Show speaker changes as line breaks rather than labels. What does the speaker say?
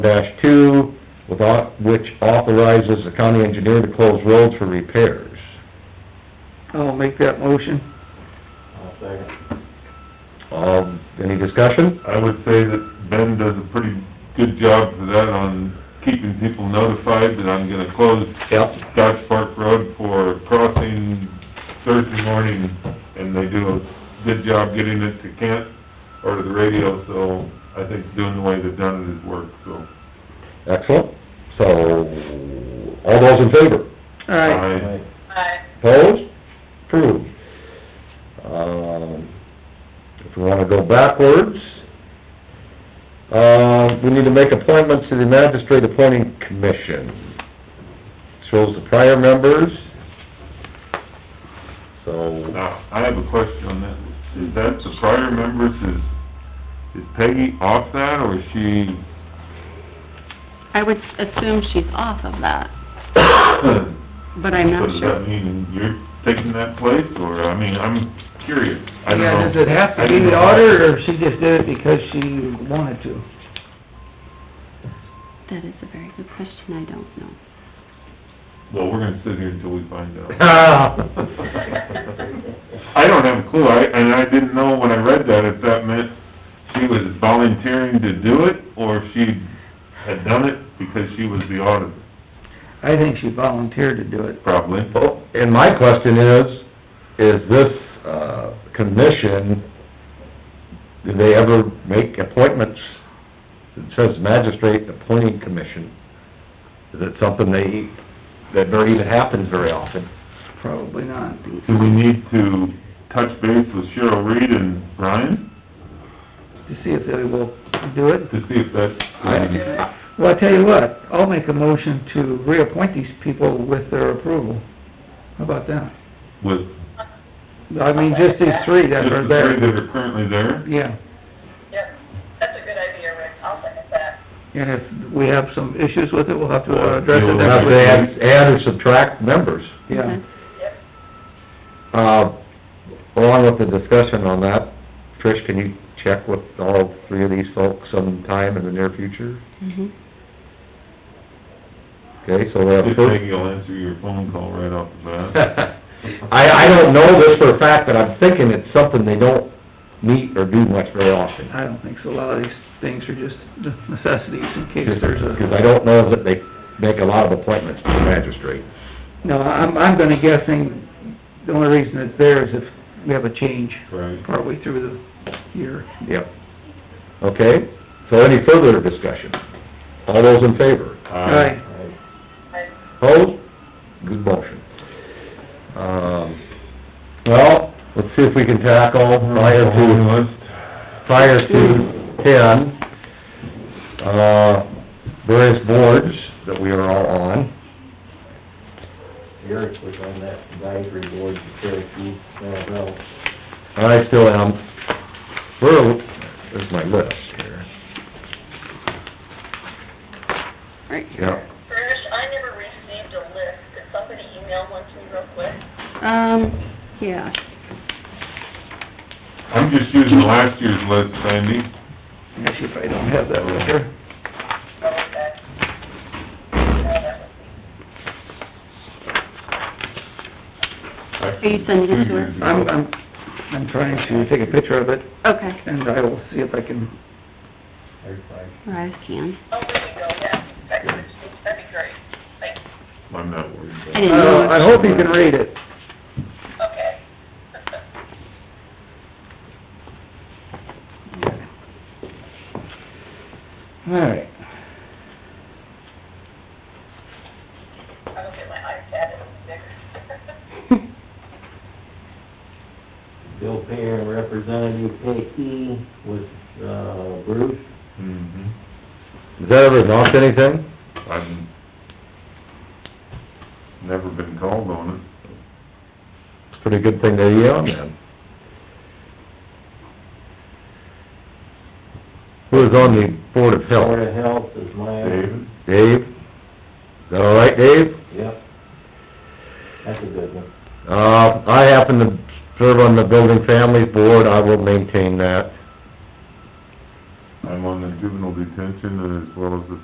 two, with au- which authorizes the county engineer to close roads for repairs.
I'll make that motion.
I'll second.
Um, any discussion?
I would say that Ben does a pretty good job for that on keeping people notified that I'm gonna close
Yep.
Dodge Park Road for crossing Thursday morning, and they do a good job getting it to Kent or to the radio, so I think doing the way they've done it has worked, so.
Excellent. So, all those in favor?
All right,
I-
Aye.
Opposed? Approved. Um, if we wanna go backwards, uh, we need to make appointments to the magistrate appointing commission. Shows the prior members. So,
Now, I have a question on that. Is that the prior members, is, is Peggy off that, or is she,
I would assume she's off of that, but I'm
so
not
does
sure.
that mean you're taking that place, or, I mean, I'm curious. I don't
yeah,
know.
does it have
I uh,
to be
didn't
the
know.
order, or she just did it because she wanted to?
That is a very good question, I don't know.
Well, we're gonna sit here until we find out.
Ah.
I don't have a clue, I, and I didn't know when I read that if that meant she was volunteering to do it, or if she had done it because she was the auditor,
I think she volunteered to do it.
probably.
well, and my question is, is this, uh, commission, do they ever make appointments? It says magistrate appointing commission. Is it something they, that very even happens very often?
Probably not.
Do we need to touch base with Cheryl Reed and Brian
To see if they will do it.
to see if um, that,
I-
Well, I tell you what, I'll make a motion to reappoint these people with their approval. How about that?
with
I mean, just these three
just
that
the
are
three
there.
that are currently there?
Yeah,
Yep, that's a good idea, Rick, I'll second that.
and if we have some issues with it, we'll have to
Well,
uh, address it
you'll
next
Unless
week.
they add, add or subtract members.
Yeah.
Okay.
Yep.
Uh, along with the discussion on that, Trish, can you check with all three of these folks sometime in the near future?
Mhm.
Okay, so we have
Just
first...
Peggy will answer your phone call right off the bat.
I, I don't know this for a fact, but I'm thinking it's something they don't meet or do much very often.
I don't think so. A lot of these things are just necessities in case there's a...
Because I don't know that they make a lot of appointments to the magistrate.
No, I'm, I'm gonna guessing, the only reason it's there is if we have a change
Right.
partway through the year.
Yep. Okay, so any further discussion? All those in favor?
Uh-huh.
Aye.
Aye.
Opposed? Good motion. Um, well, let's see if we can tackle prior to, prior to ten, uh, various boards that we are all on.
Eric was on that advisory board for Cherokee, uh, well,
I still am. Where, there's my list here.
Right.
Yeah.
Trish, I never received a list, could somebody email one to me real quick?
Um, yeah,
I'm just using last year's list, Sandy.
Let's see if I don't have that right here.
Oh, okay. No, that was-
Are you sending it to her?
I'm, I'm, I'm trying to take a picture of it,
okay,
and I will see if I can,
there's like,
All right, I can.
Oh, there you go, yeah, that could, that'd be great, thanks,
I'm not worried about it.
I didn't know.
Uh, I hope you can read it.
okay.
All right.
I don't get my iPad, it's bigger.
Bill Payer and Representative Peggy was, uh, Bruce.
hmm
Has that ever knocked anything?
I've never been called on it.
It's a pretty good thing that you're on then. Who is on the Board of
Board
Health?
of Health is my,
David?
Dave? Is that all right, Dave?
yep. That's a good one.
Uh, I happen to serve on the Building Families Board, I will maintain that.
I'm on the juvenile detention and as well as the